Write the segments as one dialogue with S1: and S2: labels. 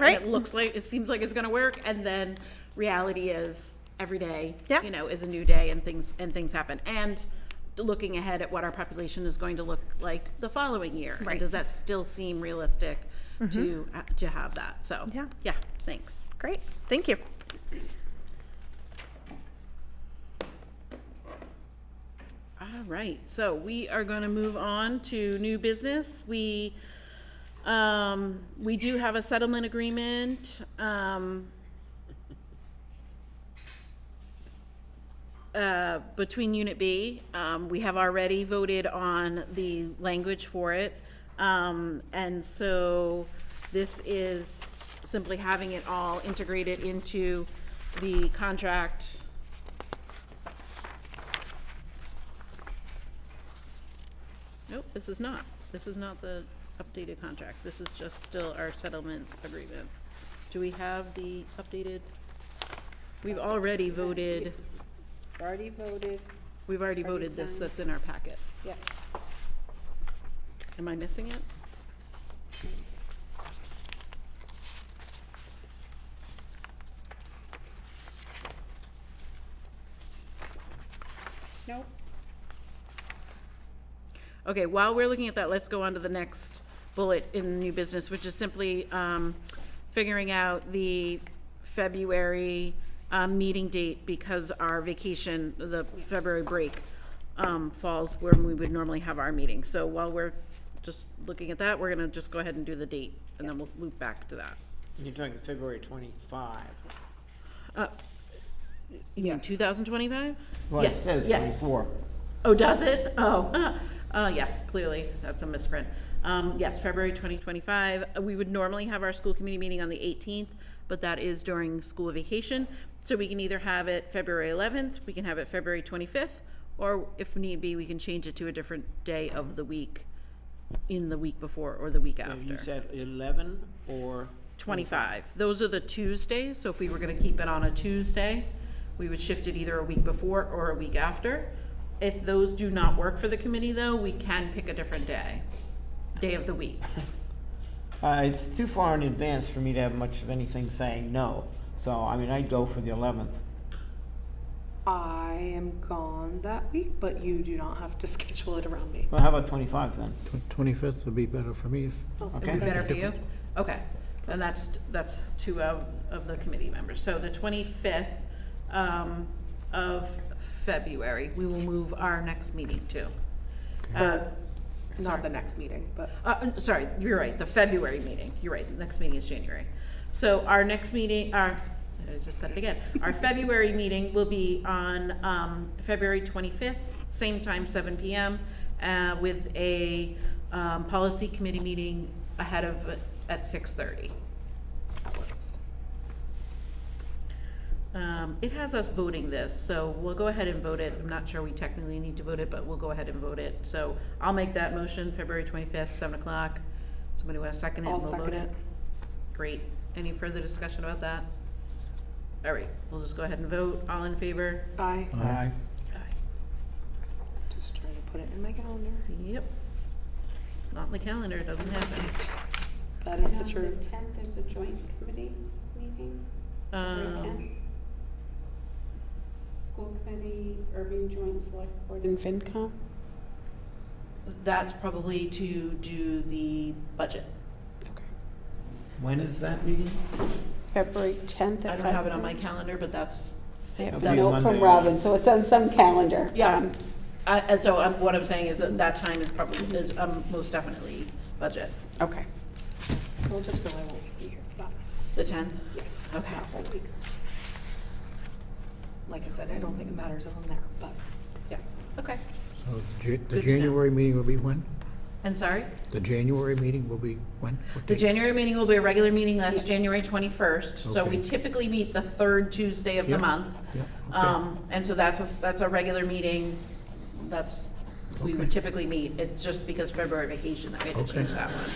S1: Right.
S2: it looks like, it seems like it's gonna work, and then reality is, every day,
S1: Yeah.
S2: you know, is a new day and things, and things happen. And looking ahead at what our population is going to look like the following year. and
S1: Right. Mm-hmm.
S2: Does that still seem realistic to, uh, to have that? So,
S1: Yeah.
S2: yeah, thanks.
S1: Great, thank you.
S2: All right, so we are going to move on to new business. We, um, we do have a settlement agreement, um, uh, between Unit B. Um, we have already voted on the language for it. Um, and so this is simply having it all integrated into the contract, Nope, this is not. This is not the updated contract. This is just still our settlement agreement. Do we have the updated? We've already voted,
S3: Already voted,
S2: we've already voted this,
S3: signed?
S2: that's in our packet.
S3: yeah.
S2: Am I missing it?
S3: Nope.
S2: Okay, while we're looking at that, let's go on to the next bullet in new business, which is simply um, figuring out the February um, meeting date because our vacation, the February break um, falls when we would normally have our meeting. So while we're just looking at that, we're going to just go ahead and do the date, and then we'll loop back to that.
S4: You're talking February twenty-five.
S2: You mean 2025?
S4: Well, it
S2: Yes,
S4: says
S2: yes.
S4: twenty-four.
S2: Oh, does it? Oh, uh, uh, yes, clearly, that's a misprint. Um, yes, February twenty twenty-five, uh, we would normally have our school committee meeting on the eighteenth, but that is during school vacation. So we can either have it February eleventh, we can have it February twenty-fifth, or if need be, we can change it to a different day of the week, in the week before or the week
S4: You
S2: after.
S4: said eleven or,
S2: Twenty-five, those are the Tuesdays, so if we were gonna keep it on a Tuesday, we would shift it either a week before or a week after. If those do not work for the committee, though, we can pick a different day, day of the week.
S4: uh, it's too far in advance for me to have much of anything saying no. So, I mean, I'd go for the eleventh.
S3: I am gone that week, but you do not have to schedule it around me.
S4: Well, how about twenty-five then?
S5: Twenty-fifth would be better for me. if-
S4: Okay.
S2: Would be better for you? Okay, and that's, that's two of, of the committee members. So the twenty-fifth, um, of February, we will move our next meeting to. Uh,
S3: Not the next meeting, but
S2: Uh, uh, sorry, you're right, the February meeting, you're right, the next meeting is January. So our next meeting, our, I just said it again, our February meeting will be on, um, February twenty-fifth, same time, seven PM, uh, with a, um, policy committee meeting ahead of, at six-thirty.
S3: that works.
S2: Um, it has us voting this, so we'll go ahead and vote it. I'm not sure we technically need to vote it, but we'll go ahead and vote it. So I'll make that motion, February twenty-fifth, seven o'clock. Somebody want to second it? and
S3: I'll
S2: we'll vote
S3: second it.
S2: Great. Any further discussion about that? All right, we'll just go ahead and vote. All in favor?
S3: I
S4: Aye.
S3: just trying to put it in my calendar.
S2: Yep. Not in the calendar, it doesn't happen.
S3: That is the
S6: And On
S3: truth.
S6: the tenth, there's a joint committee meeting, February
S2: Um,
S6: tenth. School committee, urban joint select board and FinCom.
S2: that's probably to do the budget.
S4: When is that meeting?
S6: February tenth.
S2: I don't have it on my calendar, but that's,
S4: It'll be
S6: The note
S4: Monday.
S6: from Robin, so it's on some calendar.
S2: yeah.
S6: Um,
S2: I- And so I'm- what I'm saying is that that time is probably, is um, most definitely budget.
S6: Okay.
S3: We'll just know I won't be here for that.
S2: The 10th?
S3: Yes.
S2: Okay.
S3: that whole week. Like I said, I don't think it matters if I'm there, but
S2: Yeah. Okay.
S5: So it's Ja-
S2: to know.
S5: The January meeting will be when?
S2: And sorry?
S5: The January meeting will be when? What
S2: The
S5: date?
S2: January meeting will be a regular meeting, that's January 21st. So we
S5: Okay.
S2: typically meet the third Tuesday of the
S5: Yeah.
S2: month.
S5: Yeah, okay.
S2: Um, And so that's, a s- that's a regular meeting, that's, we would
S5: Okay.
S2: typically meet, it's just because February vacation that we had to
S5: Okay.
S2: change that one.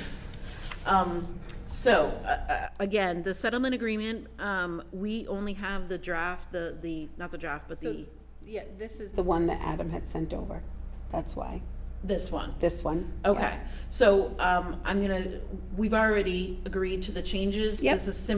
S2: Um, So, uh, uh, again, the settlement agreement, um, we only have the draft, the, the, not the draft, but the,
S7: Yeah, this is,
S6: The one that Adam had sent over, that's why.
S2: this one.
S1: this one.
S2: Okay, so, um, I'm gonna, we've already agreed to the changes.
S1: Yep.
S2: This is simply